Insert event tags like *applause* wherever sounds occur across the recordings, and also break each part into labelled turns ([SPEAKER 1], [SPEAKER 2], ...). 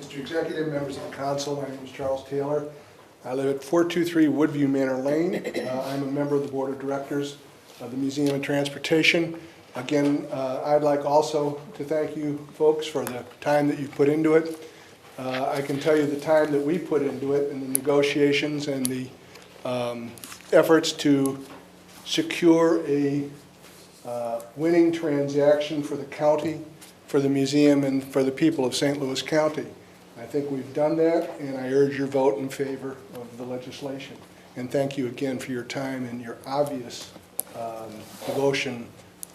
[SPEAKER 1] Mr. Executive, members of the council, my name is Charles Taylor. I live at 423 Woodview Manor Lane. Uh, I'm a member of the Board of Directors of the Museum of Transportation. Again, uh, I'd like also to thank you folks for the time that you put into it. Uh, I can tell you the time that we put into it and the negotiations and the um, efforts to secure a uh, winning transaction for the county, for the museum, and for the people of St. Louis County. I think we've done that, and I urge your vote in favor of the legislation. And thank you again for your time and your obvious um, devotion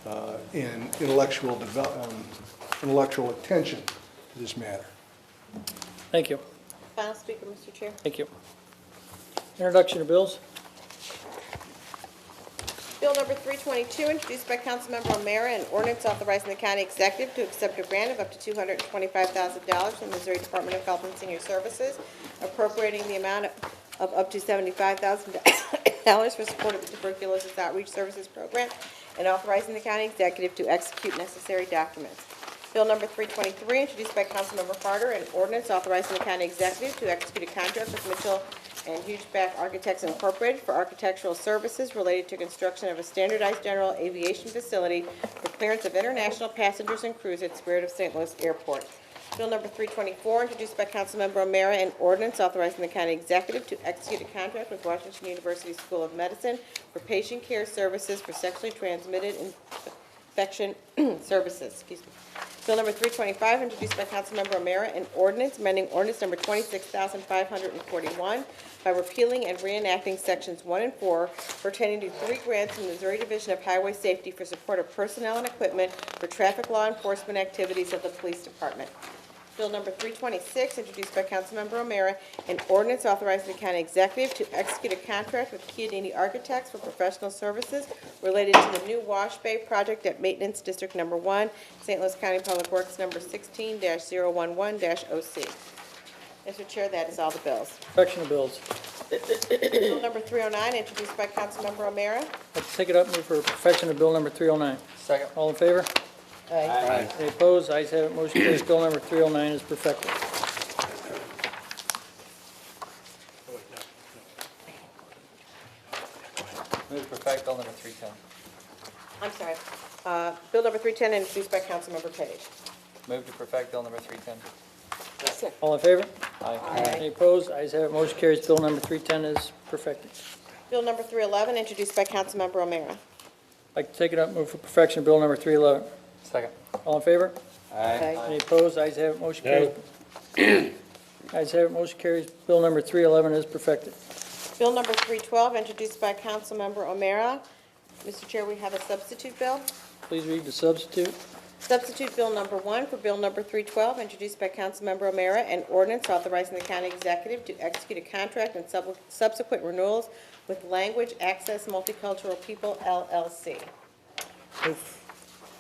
[SPEAKER 1] uh, and intellectual, devel- um, intellectual attention to this matter.
[SPEAKER 2] Thank you,
[SPEAKER 3] Final speaker, Mr. Chair.
[SPEAKER 2] thank you. Introduction of bills,
[SPEAKER 3] Bill number 322, introduced by Councilmember O'Meara, an ordinance authorizing the county executive to accept a grant of up to $225,000 from the Missouri Department of Health and Senior Services, appropriating the amount of up to $75,000 for support of the tuberculosis outreach services program, and authorizing the county executive to execute necessary documents. Bill number 323, introduced by Councilmember Harder, an ordinance authorizing the county executive to execute a contract with Mitchell and Hugeback Architects Incorporated for architectural services related to construction of a standardized general aviation facility for clearance of international passengers and crews at Spirit of St. Louis Airport. Bill number 324, introduced by Councilmember O'Meara, an ordinance authorizing the county executive to execute a contract with Washington University School of Medicine for patient care services for sexually transmitted infection *clears throat* services, excuse me. Bill number 325, introduced by Councilmember O'Meara, an ordinance amending ordinance number 26,541 by repealing and reenacting sections 1 and 4 pertaining to three grants from the Missouri Division of Highway Safety for support of personnel and equipment for traffic law enforcement activities of the police department. Bill number 326, introduced by Councilmember O'Meara, an ordinance authorizing the county executive to execute a contract with Chiodini Architects for professional services related to the new wash bay project at Maintenance District Number 1, St. Louis County Public Works Number 16-011-OC. Mr. Chair, that is all the bills.
[SPEAKER 2] introduction of bills.
[SPEAKER 3] Bill number 309, introduced by Councilmember O'Meara.
[SPEAKER 2] Let's take it up, move for perfection of bill number 309. Second. All in favor? Aye. Any opposed? Ayes have it, motion carries. Bill number 309 is perfected.
[SPEAKER 4] Move to perfect bill number three ten.
[SPEAKER 3] I'm sorry. Uh, Bill number 310, introduced by Councilmember Page.
[SPEAKER 4] Move to perfect bill number three ten.
[SPEAKER 2] All in favor?
[SPEAKER 4] Aye.
[SPEAKER 2] Any opposed? Ayes have it, motion carries. Bill number 310 is perfected.
[SPEAKER 3] Bill number 311, introduced by Councilmember O'Meara.
[SPEAKER 2] Like to take it up, move for perfection of bill number 311.
[SPEAKER 4] Second.
[SPEAKER 2] All in favor?
[SPEAKER 4] Aye.
[SPEAKER 2] Any opposed? Ayes have it, motion carries.
[SPEAKER 4] *clears throat*
[SPEAKER 2] Ayes have it, motion carries. Bill number 311 is perfected.
[SPEAKER 3] Bill number 312, introduced by Councilmember O'Meara. Mr. Chair, we have a substitute bill.
[SPEAKER 2] Please read the substitute.
[SPEAKER 3] Substitute Bill number 1 for Bill number 312, introduced by Councilmember O'Meara, an ordinance authorizing the county executive to execute a contract and sub- subsequent renewals with Language Access Multicultural People LLC.
[SPEAKER 2] Move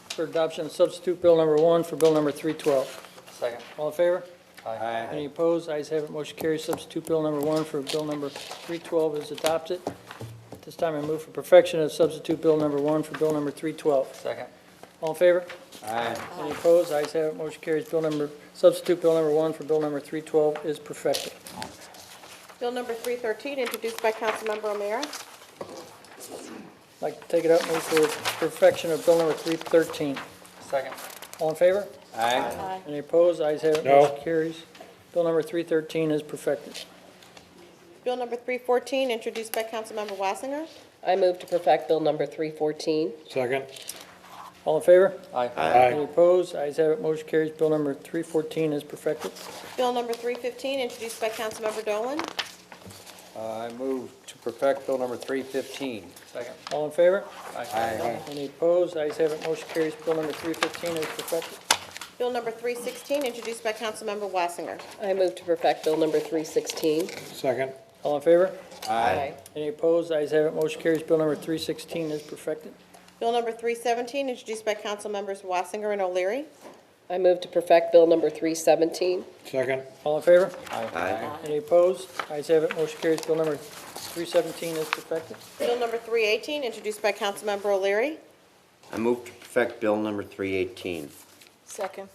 [SPEAKER 2] for adoption of substitute bill number 1 for bill number 312.
[SPEAKER 4] Second.
[SPEAKER 2] All in favor?
[SPEAKER 4] Aye.
[SPEAKER 2] Any opposed? Ayes have it, motion carries. Substitute bill number one for bill number 312 is adopted. At this time, I move for perfection of substitute bill number one for bill number 312.
[SPEAKER 4] Second.
[SPEAKER 2] All in favor?
[SPEAKER 4] Aye.
[SPEAKER 2] Any opposed? Ayes have it, motion carries. Bill number, substitute bill number one for bill number 312 is perfected.
[SPEAKER 3] Bill number 313, introduced by Councilmember O'Meara.
[SPEAKER 2] I'd Like to take it up, move for perfection of bill number 313.
[SPEAKER 4] Second.
[SPEAKER 2] All in favor?
[SPEAKER 4] Aye.
[SPEAKER 2] Any opposed? Ayes have it,
[SPEAKER 5] No.
[SPEAKER 2] motion carries. Bill number 313 is perfected.
[SPEAKER 3] Bill number 314, introduced by Councilmember Wassinger.
[SPEAKER 6] I move to perfect Bill number 314.
[SPEAKER 5] Second.
[SPEAKER 2] All in favor?
[SPEAKER 4] Aye.
[SPEAKER 2] Any
[SPEAKER 5] Aye.
[SPEAKER 2] opposed? Ayes have it, motion carries. Bill number 314 is perfected.
[SPEAKER 3] Bill number 315, introduced by Councilmember Dolan.
[SPEAKER 7] I move to perfect Bill number 315.
[SPEAKER 4] Second.
[SPEAKER 2] All in favor?
[SPEAKER 7] Aye.
[SPEAKER 2] Any opposed? Ayes have it, motion carries. Bill number 315 is perfected.
[SPEAKER 3] Bill number 316, introduced by Councilmember Wassinger.
[SPEAKER 6] I move to perfect Bill number 316.
[SPEAKER 5] Second.
[SPEAKER 2] All in favor?
[SPEAKER 6] Aye.
[SPEAKER 2] Any opposed? Ayes have it, motion carries. Bill number 316 is perfected.
[SPEAKER 3] Bill number 317, introduced by Councilmembers Wassinger and O'Leary.
[SPEAKER 6] I move to perfect Bill number 317.
[SPEAKER 5] Second.
[SPEAKER 2] All in favor?
[SPEAKER 4] Aye.
[SPEAKER 2] Any opposed? Ayes have it, motion carries. Bill number 317 is perfected.
[SPEAKER 3] Bill number 318, introduced by Councilmember O'Leary.
[SPEAKER 8] I move to perfect Bill number 318.
[SPEAKER 6] Second.